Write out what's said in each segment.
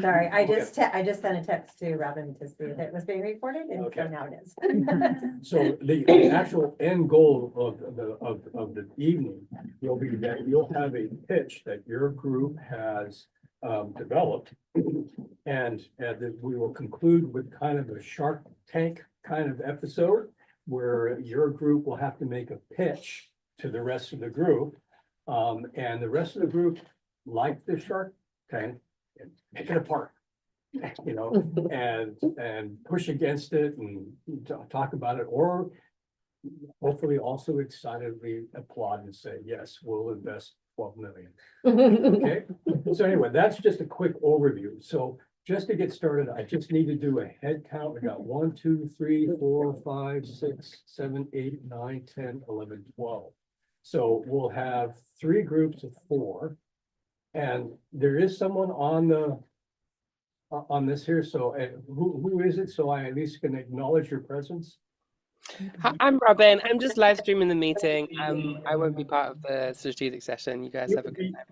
Sorry, I just, te- I just sent a text to Robin to see if it was being recorded and so Okay. now it is. So the the actual end goal of the, of, of the evening will be that you'll have a pitch that your group has um, developed. And, and that we will conclude with kind of a Shark Tank kind of episode where your group will have to make a pitch to the rest of the group. Um, and the rest of the group, like the Shark Tank, pick it apart. You know, and, and push against it and t- talk about it, or hopefully also excitedly applaud and say, yes, we'll invest twelve million. Okay, so anyway, that's just a quick overview. So just to get started, I just need to do a head count. We got one, two, three, four, five, six, seven, eight, nine, ten, eleven, twelve. So we'll have three groups of four. And there is someone on the o- on this here, so uh, who who is it? So I at least can acknowledge your presence. Hi, I'm Robin. I'm just live streaming the meeting. Um, I won't be part of the strategic session. You guys You have a can good be- time.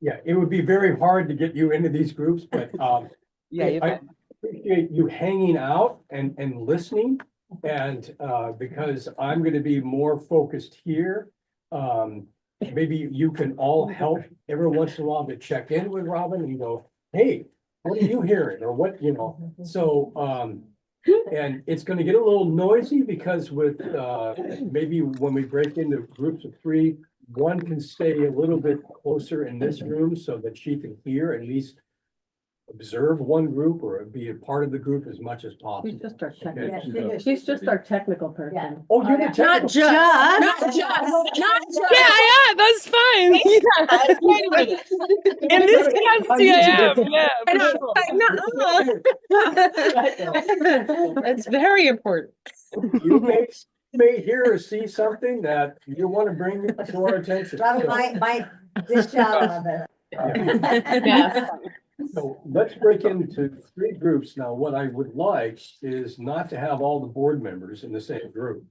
Yeah, it would be very hard to get you into these groups, but um Yeah, Yeah, you're I- fine. appreciate you hanging out and, and listening. And, uh, because I'm gonna be more focused here. Um, maybe you can all help every once in a while to check in with Robin and go, hey, what are you hearing? Or what, you know, so, um, and it's gonna get a little noisy because with, uh, maybe when we break into groups of three, one can stay a little bit closer in this room so that she can hear at least observe one group or be a part of the group as much as She's possible. just our Okay. technical, Yeah, she is. she's just our technical Yeah. person. Oh, you're the Not technical. just, not just, not Yeah, just. I am. That's fine. Wait a minute. In this capacity, I am. Yeah. for sure. It's very important. You may, you may hear or see something that you want to bring to our attention. Robin, my, my, this job of it. So let's break into three groups. Now, what I would like is not to have all the board members in the same group.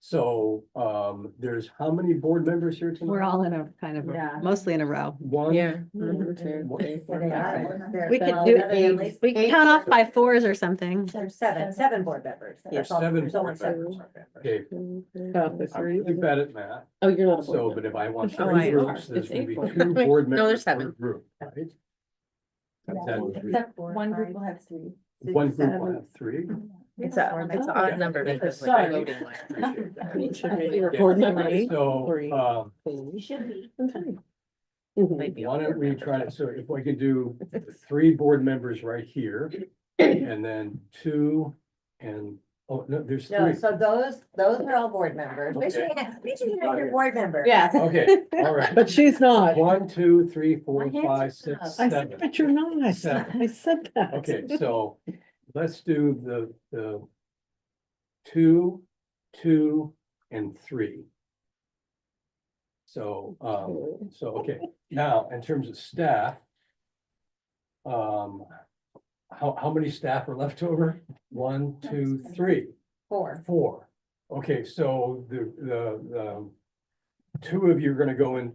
So um, there's how many board members here tonight? We're all in a kind of, a- Yeah. mostly in a row. One. Mm-hmm. one- There they are. There- We could well, do, there are at least it. we eight- could count off by fours or something. There's seven, seven board members. That's all. Seven There's only board members. Okay, I'm really bad at math. Oh, you're not. a board So, member. but if I want Oh, three I- groups, there's it's gonna be April. two board No, members there's per seven. group, right? That's it. Except for One group five, will have three. six, One group will seven. have three. It's a, it's an Yeah. odd number Yeah. because like Sorry. voting. like- Appreciate that. You're a Yeah. board member. Right. So, Three. um, You should be. might be why on there. don't we try to, so if we could do three board members right here, and then two, and, oh, no, there's No, three. so those, those are all board members. Make sure you have, make sure you have your board member. Yeah. Okay, all right. But she's not. One, two, three, Uh, four, My hands five, are up. six, I said, seven. but you're not. Seven. I said that. Okay, so let's do the, the two, two, and three. So, um, so, okay, now, in terms of staff. Um, how, how many staff are left over? One, two, three, Four. four. Okay, so the, the, the two of you are gonna go and,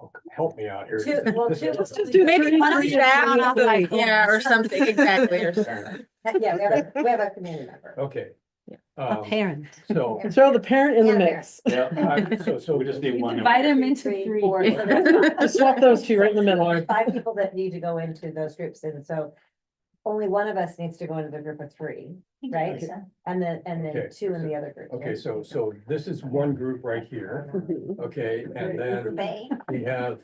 oh, help me out here. Two, well, two. Let's just do Maybe three, one of three, them. and Count off by three. fours. Yeah, or something, exactly, or something. Yeah, we have a, we have a community member. Okay. Yeah. A Um, parent. so, Throw the parent in the Yeah. mix. I- so, so we just need one. Divide them into Three, three. four, so there's Just swap those two right in the middle. Five people that need to go into those groups, and so only one of us needs to go into the group of three, right? And then, and Okay. then two in the other group. Okay, so, so this is one group right here, okay, and then Bay. we have,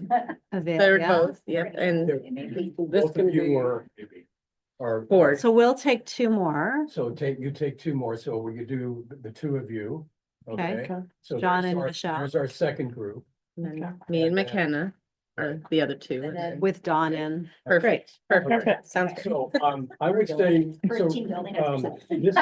avail- Third yeah. both, yep, and both of you are. Are. board. So we'll take two more. So take, you take two more, so we could do the two of you, okay? Okay. So John there's and our- Michelle. There's our second group, And then Me and McKenna are the other two. And then- With Dawn in. Perfect, Perfect. perfect. Sounds good. so, um, I would say, so, um, this,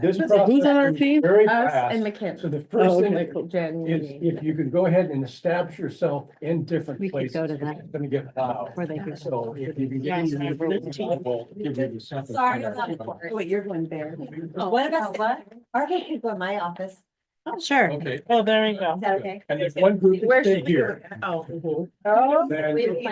this Who's on our process is team? very Us and fast. McKenna. So the first Oh, thing okay. that Jen. is if you could go ahead and establish yourself in different We could places. go to that. It's gonna get loud. Or they could- So if you can get. Yes, into I the will. level, give me the second Sorry part. about that. Wait, you're going there. What about what? Are there people in my office? Is Sure. Okay, Oh, there you go. that okay? and if one group Where stay should we go? here. Oh. Then- We-